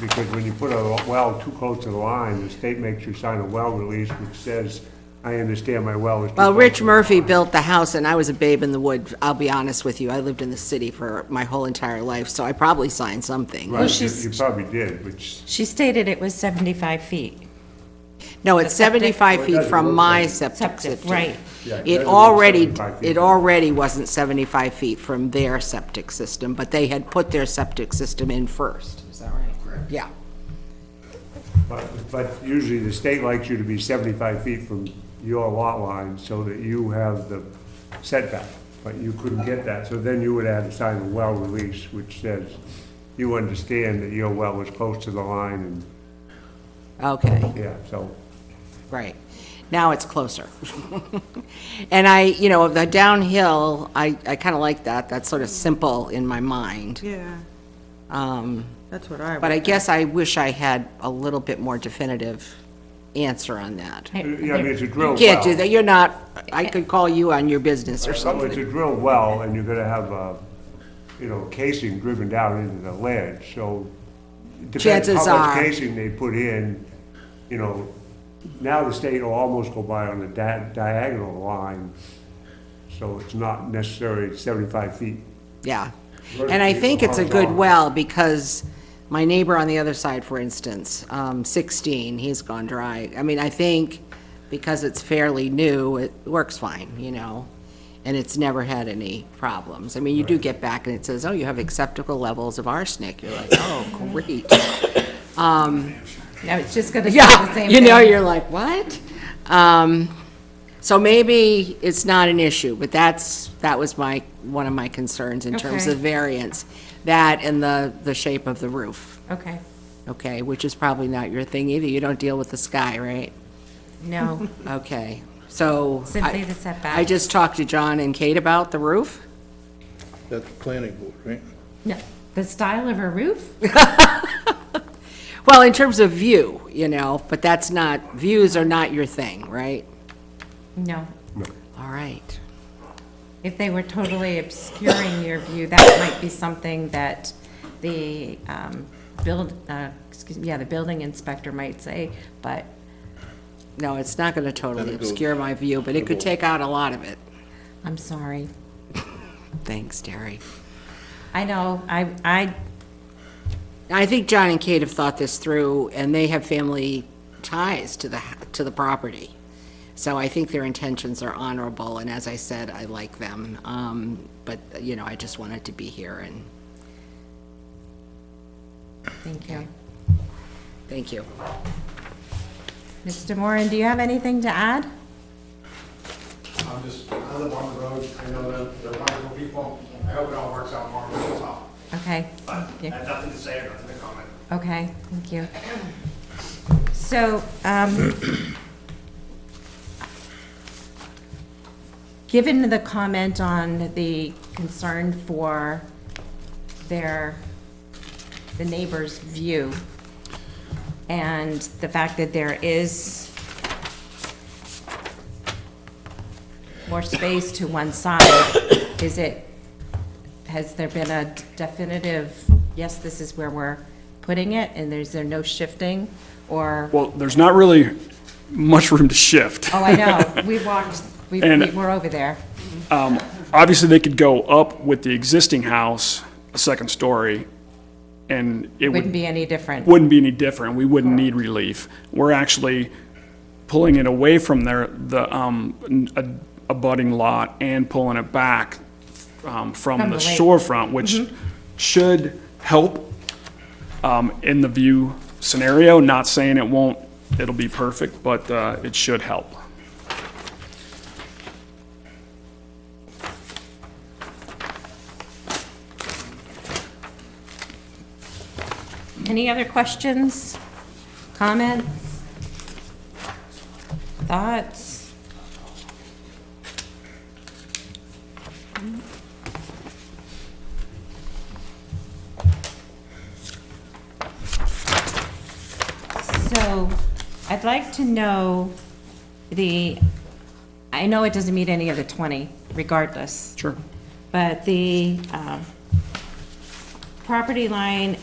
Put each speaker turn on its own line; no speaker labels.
because when you put a well too close to the line, the state makes you sign a well release which says, I understand my well is too
Well,
close
Rich
to the
Murphy
line."
built the house, and I was a babe in the wood, I'll be honest with you. I lived in the city for my whole entire life, so I probably signed something.
Right, you-
she's-
you probably did, which,
She stated it was 75 feet.
No, it's
septic-
75
Well, it
feet
doesn't
from
look
my
like-
septic
Septic,
system.
right.
Yeah, it
It
doesn't look
already,
75 feet.
it already wasn't 75 feet from their septic system, but they had put their septic system in first. Is that right? Yeah.
but, but usually the state likes you to be seventy-five feet from your lot line so that you have the setback, but you couldn't get that, so then you would have to sign a well release which says, you understand that your well was close to the line
Okay.
and, yeah, so.
Right. Now it's closer. And I, you know, the downhill, I, I kind of like that. That's sort of simple in my mind.
Yeah,
Um,
that's what I
But I
would.
guess I wish I had a little bit more definitive answer on that.
Yeah, I mean, it's a drill
You
well.
Can't do that. You're not, I could call you on your business or
So It's
something.
a drill well, and you're gonna have, uh, you know, casing driven down into the ledge, so it depends
Chances
how much
are-
casing they put in, you know, now the state will almost go by on the di- diagonal line, so it's not necessarily seventy-five feet.
Yeah.
Right,
And I
people
think it's a
aren't
good
wrong.
well, because my neighbor on the other side, for instance, um, sixteen, he's gone dry. I mean, I think because it's fairly new, it works fine, you know? And it's never had any problems. I mean, you do get back and it says, oh, you have acceptable levels of arsenic. You're like, oh, great.
Now, it's just going to say the
Yeah,
same
you know,
thing.
you're like, what? Um, so maybe it's not an issue, but that's, that was my, one of my concerns in terms
Okay.
of variance. That and the, the shape of the roof,
Okay,
okay, which is probably not your thing either. You don't deal with the sky, right?
no,
Okay, so. I-
Simply the setback.
I just talked to John and Kate about the roof.
That's the planning board, right?
no. The style of her roof?
Well, in terms of view, you know, but that's not, views are not your thing, right?
No.
All right.
If they were totally obscuring your view, that might be something that the um, build, uh, excuse, yeah, the building inspector might say, but
No, it's not going to totally
Then it goes-
obscure my view, but it could take out a lot of it.
I'm sorry.
Thanks, Terry.
I know, I, I,
I think John and Kate have thought this through, and they have family ties to the, to the property. So I think their intentions are honorable, and as I said, I like them. Um, But, you know, I just wanted to be here, and
thank you.
thank you.
Mr. Moran, do you have anything to add?
I'm just, I live on the road, I know they're, they're wonderful people, I hope it all works out for them, that's all.
Okay.
But I
Yeah.
have nothing to say, nothing to comment.
Okay, thank you. So, um, given the comment on the concern for their, the neighbor's view, and the fact that there is more space to one side, is it has there been a definitive, yes, this is where we're putting it, and there's there no shifting? Or,
Well, there's not really much room to shift.
oh, I know, we walked, we,
And-
we were over there.
Um, Obviously, they could go up with the existing house, a second story, and it
Wouldn't
would,
be any different.
wouldn't be any different. We wouldn't need relief. We're actually pulling it away from their, the, um, n- a- abutting lot and pulling it back,
From
um, from the Mm-hmm.
the lake.
shorefront, which should help, um, in the view scenario. Not saying it won't, it'll be perfect, but, uh, it should help.
Any other questions, comments, thoughts? So I'd like to know the, I know it doesn't meet any of the 20 regardless,
Sure.
but the um, property line